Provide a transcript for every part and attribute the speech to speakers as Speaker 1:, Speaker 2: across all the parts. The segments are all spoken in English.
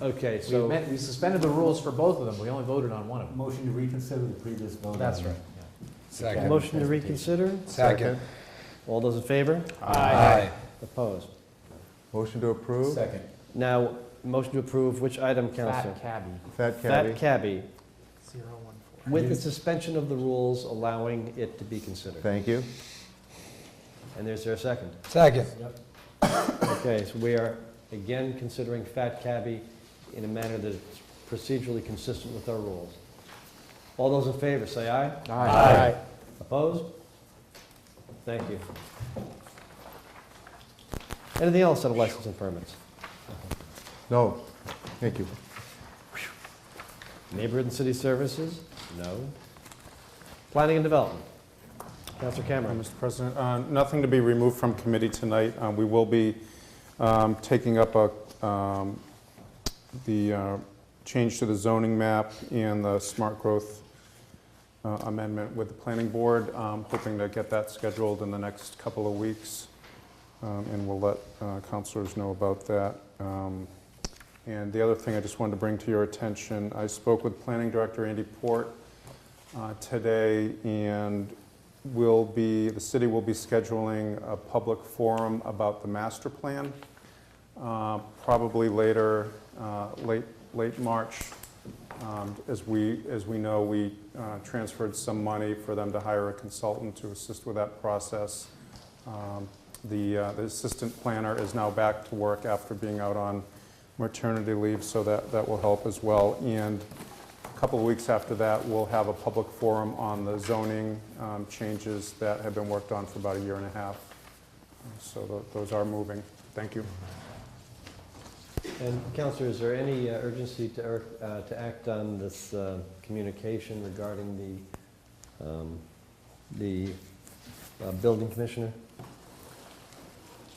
Speaker 1: Okay,
Speaker 2: We
Speaker 1: so,
Speaker 2: amend- we suspended the rules for both of them, we only voted on one of them.
Speaker 3: Motion to reconsider the previous vote.
Speaker 2: That's
Speaker 3: on-
Speaker 2: right.
Speaker 4: Second.
Speaker 5: Motion to reconsider?
Speaker 4: Second.
Speaker 5: All those in favor?
Speaker 4: Aye.
Speaker 5: Opposed?
Speaker 6: Motion to approve?
Speaker 3: Second.
Speaker 5: Now, motion to approve which item, Counselor?
Speaker 2: Fat cabbie.
Speaker 6: Fat Caddy?
Speaker 5: Fat cabbie, with the suspension of the rules allowing it to be considered.
Speaker 6: Thank you.
Speaker 5: And there's there a second?
Speaker 4: Second.
Speaker 5: Okay, so we are again considering fat cabbie in a manner that's procedurally consistent with our rules. All those in favor, say aye.
Speaker 2: Aye.
Speaker 5: Opposed? Thank you. Anything else on license and permits?
Speaker 6: No, thank you.
Speaker 5: Neighborhood and city services? No. Planning and development? Counselor
Speaker 7: Uh,
Speaker 5: Cameron?
Speaker 7: Mr. President, uh, nothing to be removed from committee tonight. Uh, We will be um, taking up a, um, the uh, change to the zoning map and the smart growth uh, amendment with the planning board, Um, hoping to get that scheduled in the next couple of weeks. Um, And we'll let uh, counselors know about that. Um, And the other thing I just wanted to bring to your attention, I spoke with Planning Director Andy Port uh, today, and will be, the city will be scheduling a public forum about the master plan, uh, probably later, uh, late, late March. Um, As we, as we know, we uh, transferred some money for them to hire a consultant to assist with that process. Um, The uh, the assistant planner is now back to work after being out on maternity leave, so that, that will help as well. And a couple of weeks after that, we'll have a public forum on the zoning um, changes that have been worked on for about a year and a half. So tho- those are moving. Thank you.
Speaker 5: And Counselor, is there any uh, urgency to, er- uh, to act on this uh, communication regarding the, um, the uh, building commissioner?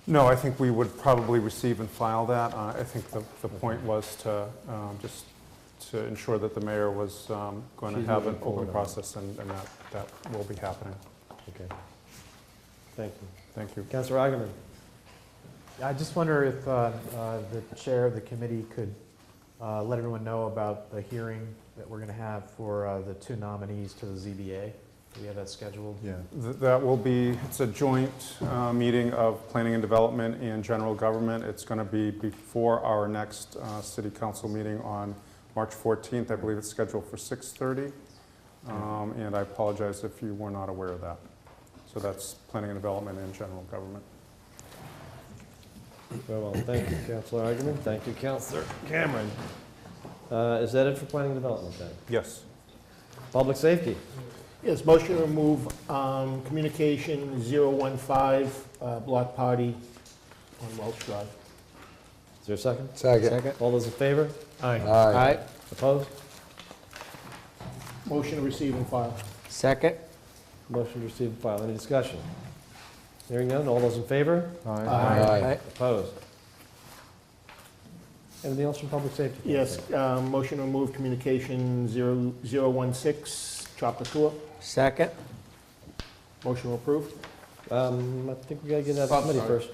Speaker 7: No, I think we would probably receive and file that. Uh, I think the, the point was to, um, just to ensure that the mayor was going to
Speaker 5: She's
Speaker 7: have an
Speaker 5: moving forward on
Speaker 7: open
Speaker 5: it.
Speaker 7: process, and and that, that will be happening.
Speaker 5: Okay. Thank you.
Speaker 7: Thank you.
Speaker 5: Counselor Augerman?
Speaker 2: I just wonder if uh, uh, the chair of the committee could uh, let everyone know about the hearing that we're going to have for uh, the two nominees to the ZBA. Do we have that scheduled?
Speaker 6: Yeah.
Speaker 7: Th- That will be, it's a joint uh, meeting of planning and development and general government. It's going to be before our next uh, city council meeting on March 14th. I believe it's scheduled for 6:30. Um, And I apologize if you were not aware of that. So that's planning and development and general government.
Speaker 5: Very well, thank you, Counselor Augerman. Thank you, Counselor Cameron. Uh, Is that it for planning and development then?
Speaker 7: Yes.
Speaker 5: Public safety?
Speaker 8: Yes, motion to remove um, communication 015, uh, block party on Welch Drive.
Speaker 5: Is there a second?
Speaker 4: Second.
Speaker 5: All those in favor?
Speaker 4: Aye.
Speaker 5: Opposed?
Speaker 8: Motion to receive and file.
Speaker 2: Second.
Speaker 5: Motion to receive and file. Any discussion? Hearing none, all those in favor?
Speaker 4: Aye.
Speaker 5: Opposed? Anything else from public safety?
Speaker 8: Yes, uh, motion to remove communication 0- 016, Chappaqua.
Speaker 2: Second.
Speaker 8: Motion approved.
Speaker 5: Um, I think we gotta get
Speaker 8: Oh,
Speaker 5: that committee first.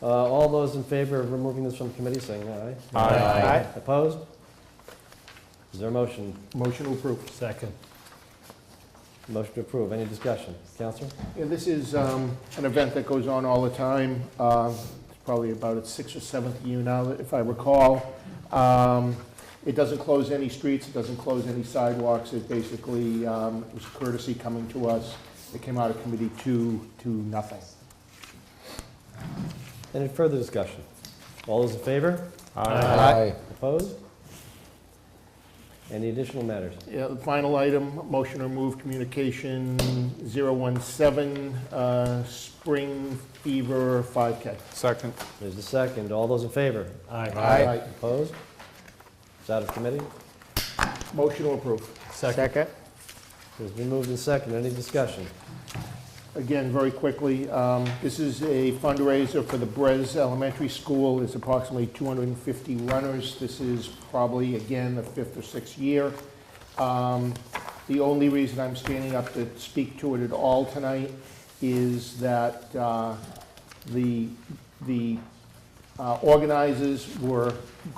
Speaker 5: Uh, All those in favor of removing this from committee, saying aye.
Speaker 8: Aye.
Speaker 5: Opposed? Is there a motion?
Speaker 8: Motion approved.
Speaker 5: Second. Motion to approve. Any discussion? Counselor?
Speaker 8: And this is um, an event that goes on all the time. Uh, It's probably about its sixth or seventh year now, if I recall. Um, It doesn't close any streets, it doesn't close any sidewalks. It basically um, it was courtesy coming to us. It came out of committee two to nothing.
Speaker 5: Any further discussion? All those in favor?
Speaker 4: Aye.
Speaker 5: Opposed? Any additional matters?
Speaker 8: Yeah, the final item, motion to remove communication 017, uh, spring fever 5K.
Speaker 7: Second.
Speaker 5: There's a second. All those in favor?
Speaker 4: Aye.
Speaker 5: Opposed? It's out of committee.
Speaker 8: Motion to approve.
Speaker 2: Second.
Speaker 5: It's been moved and second. Any discussion?
Speaker 8: Again, very quickly, um, this is a fundraiser for the Brez Elementary School. It's approximately 250 runners. This is probably, again, the fifth or sixth year. Um, The only reason I'm standing up to speak to it at all tonight is that uh, the the uh, organizers were